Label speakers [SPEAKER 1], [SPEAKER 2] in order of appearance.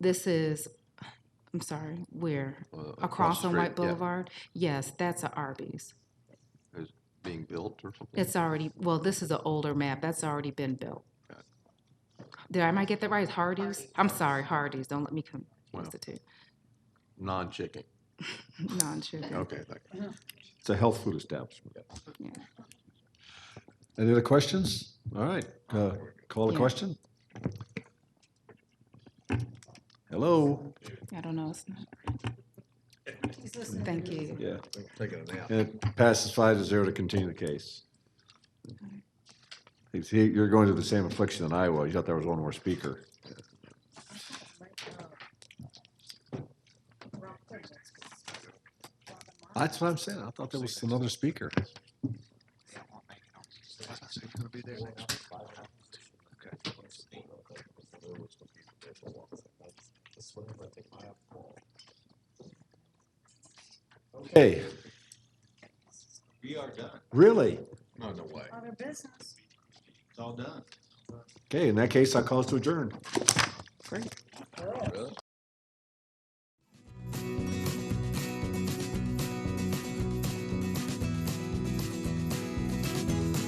[SPEAKER 1] This is, I'm sorry, where?
[SPEAKER 2] uh,
[SPEAKER 1] Across
[SPEAKER 2] the
[SPEAKER 1] on
[SPEAKER 2] street,
[SPEAKER 1] White
[SPEAKER 2] yeah,
[SPEAKER 1] Boulevard? Yes, that's a Arby's.
[SPEAKER 2] Being built or something?
[SPEAKER 1] It's already, well, this is an older map, that's already been built.
[SPEAKER 2] Got it.
[SPEAKER 1] Did I, am I get that right, Hardee's? I'm sorry, Hardee's, don't let me con-
[SPEAKER 2] Wow.
[SPEAKER 1] constitute,
[SPEAKER 2] Non-chicken,
[SPEAKER 1] non-sugar.
[SPEAKER 2] okay, thank you.
[SPEAKER 3] It's a health food establishment.
[SPEAKER 1] Yeah.
[SPEAKER 3] Any other questions? All right, uh, call the
[SPEAKER 1] Yeah.
[SPEAKER 3] question. Hello?
[SPEAKER 1] I don't know, it's not. Thank you.
[SPEAKER 3] Yeah,
[SPEAKER 2] Taking a nap.
[SPEAKER 3] and it passes five to zero to continue the case. You see, You're going through the same affliction that I was. You thought there was one more speaker. That's what I'm saying. I thought there was another speaker. Okay. We are done. Really?
[SPEAKER 2] No, no way.
[SPEAKER 4] Other business.
[SPEAKER 3] Okay, in that case, I call us to adjourn.
[SPEAKER 1] Great.